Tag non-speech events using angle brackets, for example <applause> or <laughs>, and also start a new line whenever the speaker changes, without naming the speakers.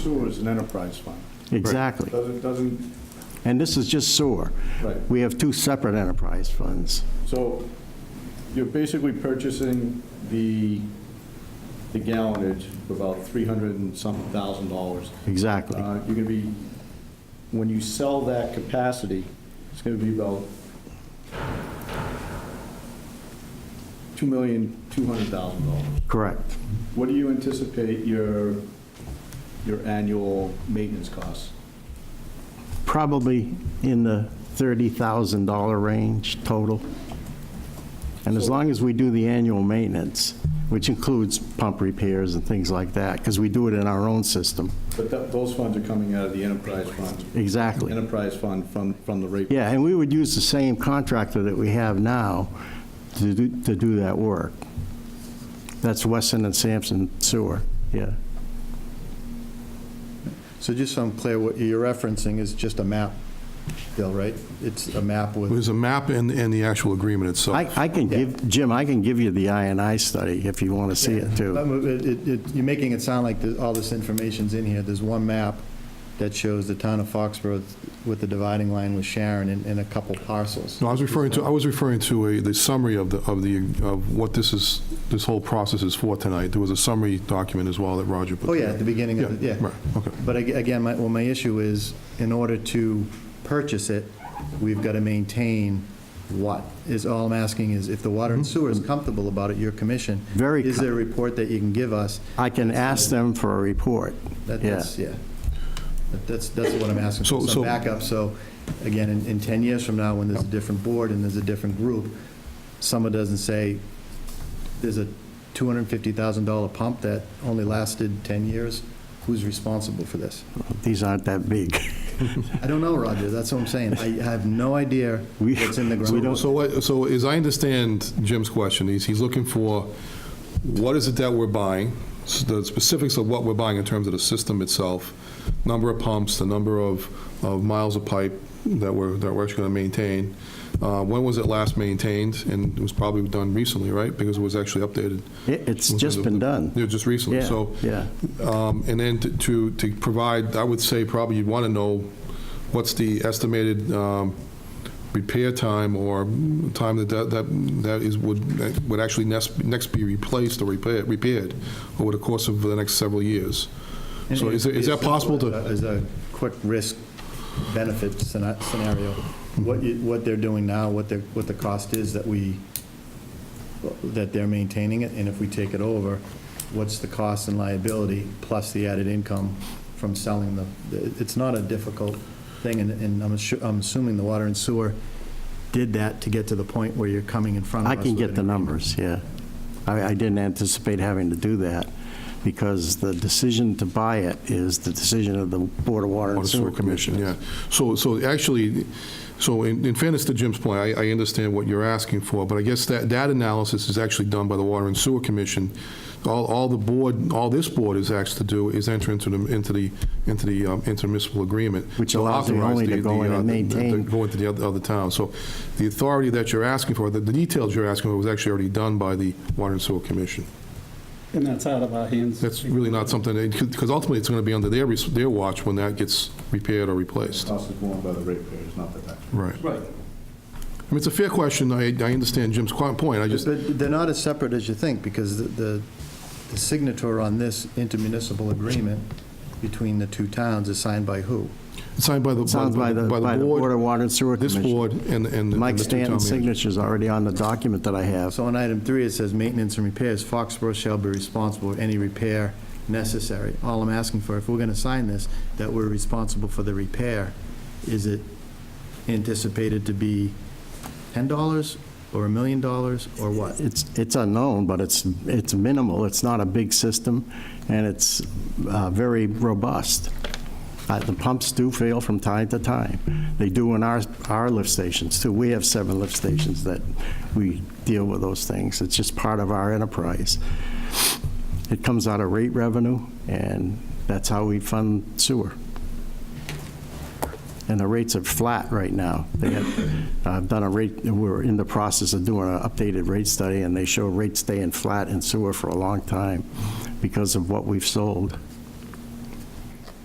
Sewer is an enterprise fund.
Exactly.
Doesn't, doesn't,
And this is just sewer.
Right.
We have two separate enterprise funds.
so you're basically purchasing the, the gallonage for about 300 and something thousand dollars.
Exactly.
Uh, You're going to be, when you sell that capacity, it's going to be about $2,200,000.
Correct.
What do you anticipate your, your annual maintenance costs?
Probably in the $30,000 range total. And as long as we do the annual maintenance, which includes pump repairs and things like that, because we do it in our own system.
But that- those funds are coming out of the enterprise fund,
Exactly.
enterprise fund from, from the rate.
Yeah, and we would use the same contractor that we have now to do, to do that work. That's Weston and Sampson Sewer, yeah.
So just so I'm clear, what you're referencing is just a map, Bill, right? It's a map with,
There's a map and, and the actual agreement
I,
itself.
I can give, Jim, I can give you the INI study if you want to see it too.
Um, it- it- it- you're making it sound like the- all this information's in here. There's one map that shows the town of Foxborough with the dividing line with Sharon and, and a couple parcels.
No, I was referring to, I was referring to a, the summary of the, of the, of what this is, this whole process is for tonight. There was a summary document as well that Roger put.
Oh, yeah, at the beginning of, the-
Yeah,
yeah.
right, okay.
But ag- again, my, well, my issue is, in order to purchase it, we've got to maintain what? Is all I'm asking is, if the water and sewer is comfortable about it, your commission.
Mm-hmm. Very
Is there a report that you can give us
I can ask them for a report.
That-
Yeah.
That's, yeah. That- That's, that's what I'm asking,
So-
for
so-
some backup. So, again, in, in 10 years from now, when there's a different board and there's a different group, someone doesn't say, there's a $250,000 pump that only lasted 10 years, who's responsible for this?
These aren't that big. <laughs>
I don't know, Roger, that's what I'm saying. I have no idea
We-
what's in
<laughs>
the
we
ground.
don't-
So, what- so as I understand Jim's question, he's, he's looking for, what is it that we're buying? s- The specifics of what we're buying in terms of the system itself, number of pumps, the number of, of miles of pipe that we're, that we're actually going to maintain. Uh, When was it last maintained? And it was probably done recently, right? Because it was actually updated.
It- It's just been done.
Yeah, just recently,
Yeah,
so.
yeah.
um, And then to- to, to provide, I would say probably you'd want to know what's the estimated um, repair time or time that, that, that that is, would, that would actually next, next be replaced or repaired, repaired over the course of the next several years. So is, it- is that possible to,
As a quick risk benefit scena- scenario, what you, what they're doing now, what the, what the cost is that we, that they're maintaining it, and if we take it over, what's the cost and liability, plus the added income from selling the, it's not a difficult thing, and, and I'm assu- I'm assuming the water and sewer did that to get to the point where you're coming in front of
I
us.
can
with
get
an
the numbers,
increase.
yeah. I, I didn't anticipate having to do that because the decision to buy it is the decision of the Board of Water
on
and
the
Sewer
sewer commission,
Commissioners.
yeah. So, so actually, so in in fairness to Jim's point, I, I understand what you're asking for, but I guess that, that analysis is actually done by the Water and Sewer Commission. All, all the board, all this board is asked to do is enter into the, into the, into the um, intermunicipal agreement.
Which allows the
authorize
only to
the-
go
the,
in
uh,
and
the- the-
maintain.
Go into the other, other towns. So the authority that you're asking for, the the details you're asking for was actually already done by the Water and Sewer Commission.
And that's out of our hands.
That's really not something, because ultimately, it's going to be under their, res- their watch when that gets repaired or replaced.
Cost is borne by the ratepayers, not the taxpayers.
Right. I
Right.
mean, it's a fair question. I, I understand Jim's qu- point. I just,
But they're not as separate as you think, because the- the, the signature on this intermunicipal agreement between the two towns is signed by who?
it's signed by the,
Sounds by the, by the Board of Water and Sewer
This
Commission.
board and, and. the-
Mike
and the two town
Stanton's
managers.
signature's already on the document that I have.
So on item three, it says maintenance and repairs, Foxborough shall be responsible for any repair necessary. All I'm asking for, if we're gonna sign this, that we're responsible for the repair, is it anticipated to be ten dollars, or a million dollars, or what?
It's, it's unknown, but it's, it's minimal. It's not a big system, and it's uh, very robust. Uh, The pumps do fail from time to time. They do in our, our lift stations, too. We have seven lift stations that we deal with those things. It's just part of our enterprise. It comes out of rate revenue, and that's how we fund sewer. And the rates are flat right now. They have, I've done a rate, we're in the process of doing an updated rate study, and they show rates staying flat in sewer for a long time because of what we've sold.